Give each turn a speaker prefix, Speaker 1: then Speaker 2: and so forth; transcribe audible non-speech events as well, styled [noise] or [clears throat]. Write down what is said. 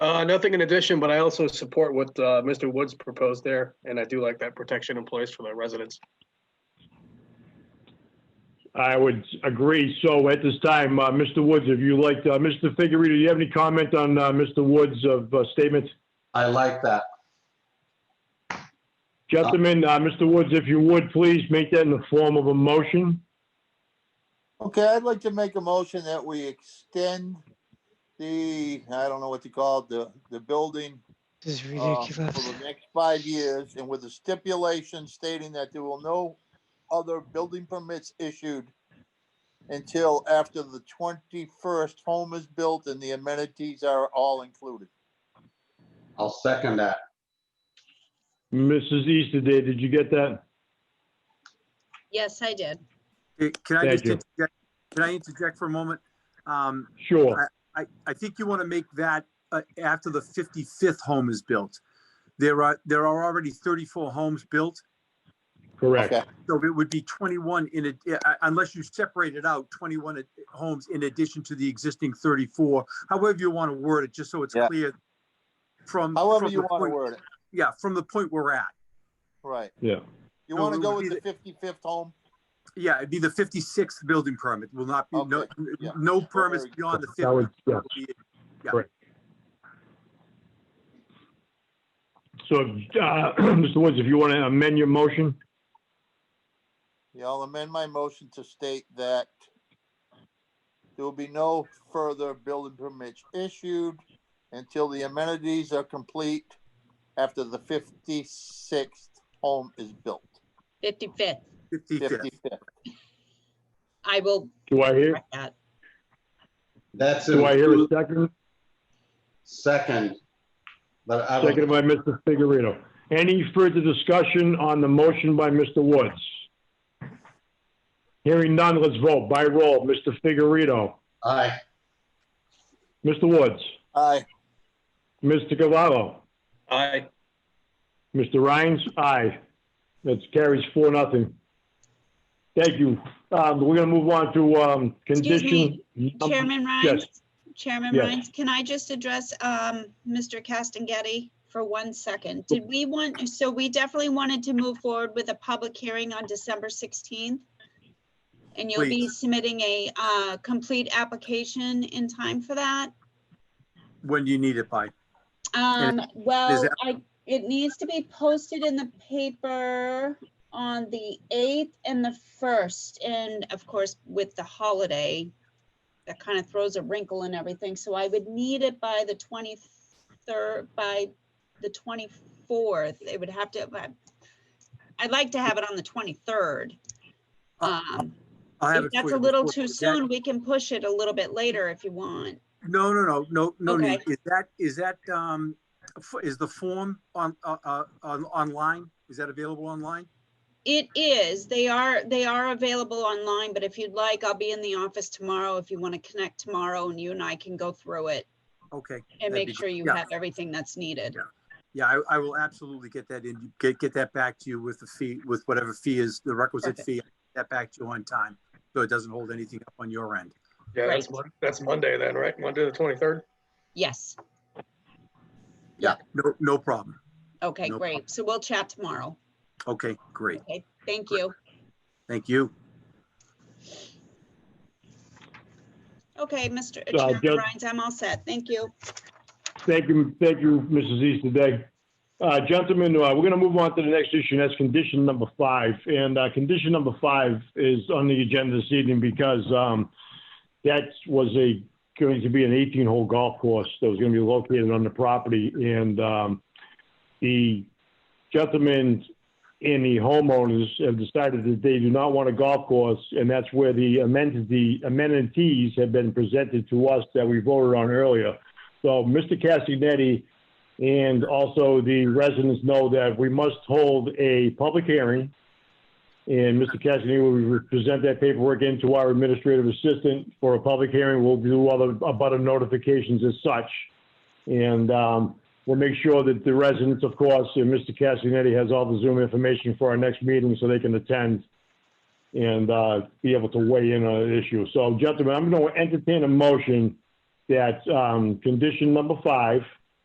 Speaker 1: Uh, nothing in addition, but I also support what, uh, Mr. Woods proposed there, and I do like that protection in place for the residents.
Speaker 2: I would agree. So at this time, uh, Mr. Woods, if you like, uh, Mr. Figurito, do you have any comment on uh, Mr. Woods' of uh, statement?
Speaker 3: I like that.
Speaker 2: Gentlemen, uh, Mr. Woods, if you would, please make that in the form of a motion.
Speaker 4: Okay, I'd like to make a motion that we extend the, I don't know what to call it, the, the building
Speaker 5: This is
Speaker 4: uh, for
Speaker 5: ridiculous.
Speaker 4: the next five years and with a stipulation stating that there will no other building permits issued until after the twenty-first home is built and the amenities are all included.
Speaker 3: I'll second that.
Speaker 2: Mrs. Easterday, did you get that?
Speaker 6: Yes, I did.
Speaker 7: Hey, Can I
Speaker 2: Thank
Speaker 7: just,
Speaker 2: you.
Speaker 7: interject- can I interject for a moment? Um,
Speaker 2: Sure.
Speaker 7: I, I think you want to make that uh, after the 55th home is built. There are, there are already 34 homes built,
Speaker 2: Correct.
Speaker 4: Okay,
Speaker 7: so it would be 21 in, ad- uh, uh, unless you separate it out, 21 ad- homes in addition to the existing 34, however you want to word it, just so it's
Speaker 4: Yeah.
Speaker 7: clear from.
Speaker 4: however
Speaker 7: from
Speaker 4: you
Speaker 7: the
Speaker 4: want
Speaker 7: point-
Speaker 4: to word it,
Speaker 7: Yeah, from the point we're at.
Speaker 4: right.
Speaker 2: Yeah.
Speaker 4: You
Speaker 7: No,
Speaker 4: want to
Speaker 7: we
Speaker 4: go
Speaker 7: would
Speaker 4: with
Speaker 7: be
Speaker 4: the fifty-fifth home?
Speaker 7: Yeah, it'd be the 56th building permit. Will not be, no,
Speaker 4: Okay, yeah.
Speaker 7: no permits
Speaker 4: Very-
Speaker 7: beyond the
Speaker 2: That would,
Speaker 7: 50th.
Speaker 2: yeah.
Speaker 7: will be
Speaker 2: So, uh, [clears throat] Mr. Woods, if you want to amend your motion,
Speaker 4: Yeah, I'll amend my motion to state that there will be no further building permits issued until the amenities are complete after the fifty-sixth home is built,
Speaker 6: 55th.
Speaker 7: 55th.
Speaker 4: fifty-fifth.
Speaker 6: I will
Speaker 2: do I hear,
Speaker 6: write that.
Speaker 3: That's
Speaker 2: do I hear a
Speaker 3: a
Speaker 2: second?
Speaker 3: second. But I
Speaker 2: Seconded
Speaker 3: would,
Speaker 2: by Mr. Figurito. Any further discussion on the motion by Mr. Woods? Hearing none, let's vote by roll. Mr. Figurito,
Speaker 3: aye,
Speaker 2: Mr. Woods,
Speaker 4: Aye,
Speaker 2: Mr. Cavallo,
Speaker 1: Aye.
Speaker 2: Mr. Rhines, aye. That carries four, nothing. Thank you. Um, we're gonna move on to, um,
Speaker 6: Excuse
Speaker 2: condition.
Speaker 6: me, Chairman
Speaker 2: Um, yes.
Speaker 6: Rhines? Chairman
Speaker 2: Yes.
Speaker 6: Rhines, can I just address um, Mr. Castagnetti for one second? Did we want, so we definitely wanted to move forward with a public hearing on December 16th? And you'll be submitting a uh, complete application in time for that?
Speaker 7: When do you need it by?
Speaker 6: Um,
Speaker 7: is
Speaker 6: well,
Speaker 7: that-
Speaker 6: I, it needs to be posted in the paper on the eighth and the first, and of course, with the holiday, that kind of throws a wrinkle in everything, so I would need it by the twenty-third, by the twenty-fourth, it would have to, but I'd like to have it on the twenty-third. Um,
Speaker 7: Uh, I have
Speaker 6: if
Speaker 7: it for
Speaker 6: that's
Speaker 7: you
Speaker 6: a little
Speaker 7: before-
Speaker 6: too
Speaker 7: is that-
Speaker 6: soon, we can push it a little bit later if you want.
Speaker 7: No, no, no, no, no
Speaker 6: Okay.
Speaker 7: need. Is that, is that, um, f- is the form on, uh, uh, on, online? Is that available online?
Speaker 6: It is. They are, they are available online, but if you'd like, I'll be in the office tomorrow if you want to connect tomorrow and you and I can go through it
Speaker 7: Okay.
Speaker 6: and
Speaker 7: That'd
Speaker 6: make
Speaker 7: be
Speaker 6: sure
Speaker 7: great.
Speaker 6: you
Speaker 7: Yeah.
Speaker 6: have everything that's needed.
Speaker 7: Yeah, I, I will absolutely get that in, get, get that back to you with the fee, with whatever fee is the requisite
Speaker 6: Perfect.
Speaker 7: fee, that back to you on time. So it doesn't hold anything up on your end.
Speaker 1: Yeah, that's,
Speaker 6: Right.
Speaker 1: Mon- that's Monday then, right? Monday, the twenty-third?
Speaker 6: Yes.
Speaker 7: Yeah, no, no problem.
Speaker 6: Okay,
Speaker 7: No
Speaker 6: great. So we'll chat tomorrow.
Speaker 7: Okay, great.
Speaker 6: Okay, thank you.
Speaker 7: Thank you.
Speaker 6: Okay, Mr.
Speaker 2: Uh, Jud-
Speaker 6: Chairman Rhines, I'm all set. Thank you.
Speaker 2: Thank you, thank you, Mrs. Easterday. Uh, Gentlemen, uh, we're going to move on to the next issue, and that's condition number five. And uh, condition number five is on the agenda this evening because um, that was a, going to be an 18-hole golf course that was going to be located on the property. And um, the gentlemen and the homeowners have decided that they do not want a golf course, and that's where the amenity- amenities have been presented to us that we voted on earlier. So Mr. Castagnetti and also the residents know that we must hold a public hearing. And Mr. Castagnetti will present that paperwork into our administrative assistant for a public hearing. We'll do all the abutter notifications as such. And um, we'll make sure that the residents, of course, and Mr. Castagnetti has all the Zoom information for our next meeting so they can attend and uh, be able to weigh in on the issue. So gentlemen, I'm going to entertain a motion that um, condition number five